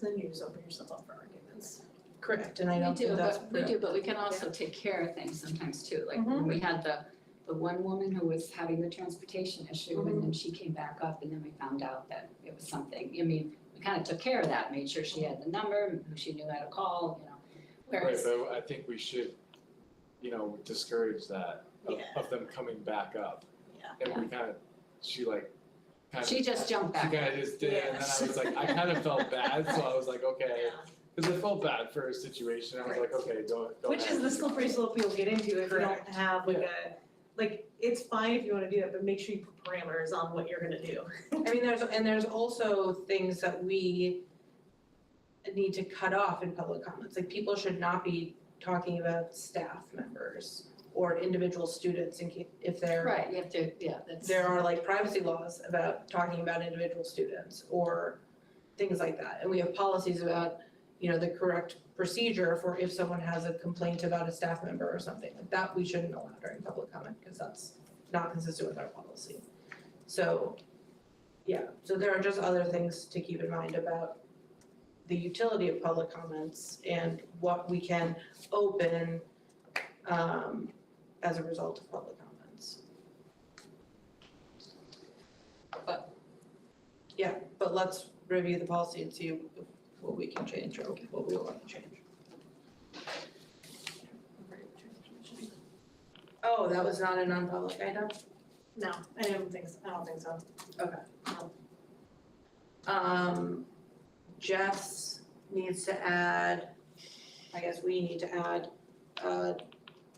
the news, open yourself up for arguments. Correct, and I We don't do, think that's Mm-hmm. but, we do, but we can also take care of things sometimes too, like when we had the, the one woman who was having the transportation issue Mm-hmm. and then she came back up and then we found out that it was something, I mean, we kind of took care of that, made sure she had the number, who she knew how to call, you know. Right, Whereas, but I think we should, you know, discourage that of Yeah. of them coming back up. Yeah. And we kind of, she like, kind of. she just jumped back. She kind of just did, it, and then I was like, I kind of felt bad, so I was like, okay, cause I felt bad for her situation, I was like, okay, don't, don't. Which have is her. the slippery slope you'll get into if you don't Correct. have like a, like, it's fine if you wanna do that, but make sure you put parameters on what you're gonna do. I mean, there's, and there's also things that we need to cut off in public comments, like people should not be talking about staff members or individual students in ca- if they're Right, you have to, yeah, that's. there are like privacy laws about talking about individual students or things like that. And we have policies about, you know, the correct procedure for if someone has a complaint about a staff member or something like that, we shouldn't allow during public comment because that's not consistent with our policy. So, yeah, so there are just other things to keep in mind about the utility of public comments and what we can open um as a result of public comments. Yeah, but let's review the policy and see what we can change or what we want to change. Oh, that was not a non-public item? No, I don't think, so. I don't think so. Um, Jess needs to add, I guess we need to add, uh,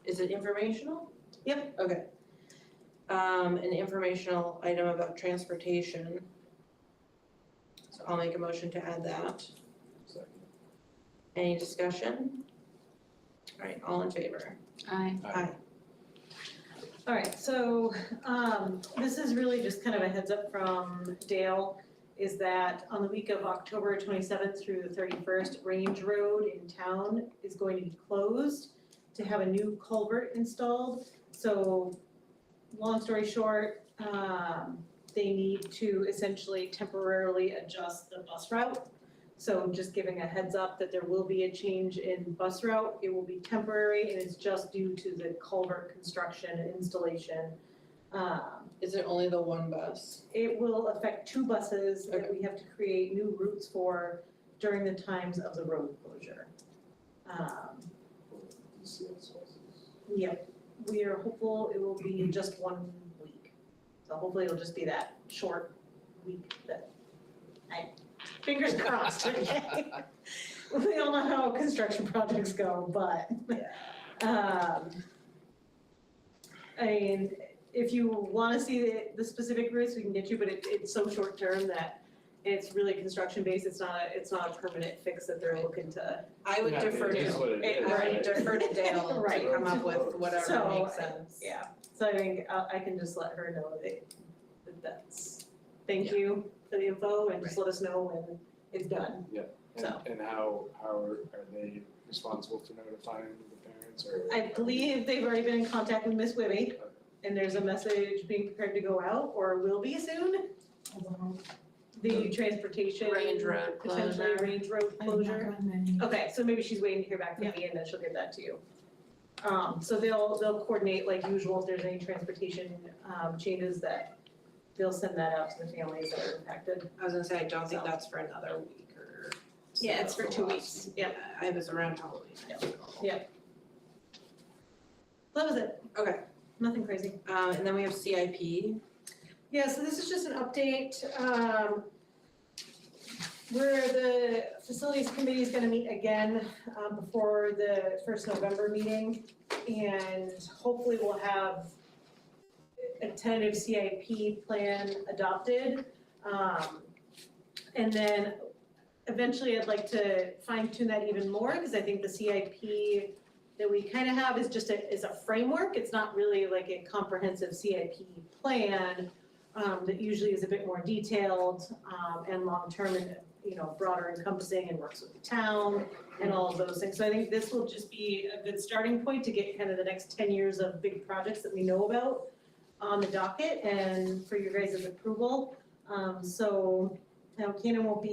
is it informational? Yep. Okay. Um, an informational item about transportation. So I'll make a motion to add that. Second. Any discussion? All right, all in favor? I, Aye. Alright, so um this is really just kind of a heads up from Dale, is that on the week of October twenty seventh through the thirty first, Range Road in town is going to be closed to have a new culvert installed, so long story short, um they need to essentially temporarily adjust the bus route. So just giving a heads up that there will be a change in bus route, it will be temporary and it's just due to the culvert construction and installation. Um, Is it only the one bus? it will affect two buses that we have to create new routes for during the times of the road closure. Um, Yep, we are hopeful it will be just one week. So hopefully it'll just be that short week that I, fingers crossed, okay? We all know how construction projects go, but, um, I mean, if you wanna see the, the specific routes, we can get you, but it, it's so short term that it's really construction based, it's not, a- it's not a permanent fix that they're looking to I would Yeah, defer it to, is what it it- is, I would right. defer to Dale Right. to come up with whatever So, makes sense. Yeah, so I think uh, I I can just let her know that that that's, thank you for the info and just let us know when it's done. And, and how, how are are they responsible for notifying the parents or? I believe they've already been in contact with Miss Whibby Okay. and there's a message being prepared to go out or will be soon. The transportation. Um, Range road Potentially closure. range road closure. Okay, so maybe she's waiting to hear back from me and then she'll get that to you. Um, so they'll, they'll coordinate like usual, if there's any transportation, um, changes that they'll send that out to the families that are impacted. I was gonna say, I don't think So. that's for another week or. Yeah, it's so. for two weeks, Yeah, yep, I was around Halloween. Yep. that was it, Okay, nothing crazy. uh, and then we have CIP. Yeah, so this is just an update, um, where the facilities committee is gonna meet again, um, before the first November meeting. And hopefully we'll have a tentative CIP plan adopted. Um, and then eventually I'd like to fine tune that even more, cause I think the CIP that we kind of have is just a, is a framework, it's not really like a comprehensive CIP plan um, that usually is a bit more detailed, um, and long-term and, you know, broader encompassing and works with the town and all of those things. So I think this will just be a good starting point to get kind of the next ten years of big projects that we know about on the docket and for your guys' approval. Um, so, now Kanan won't be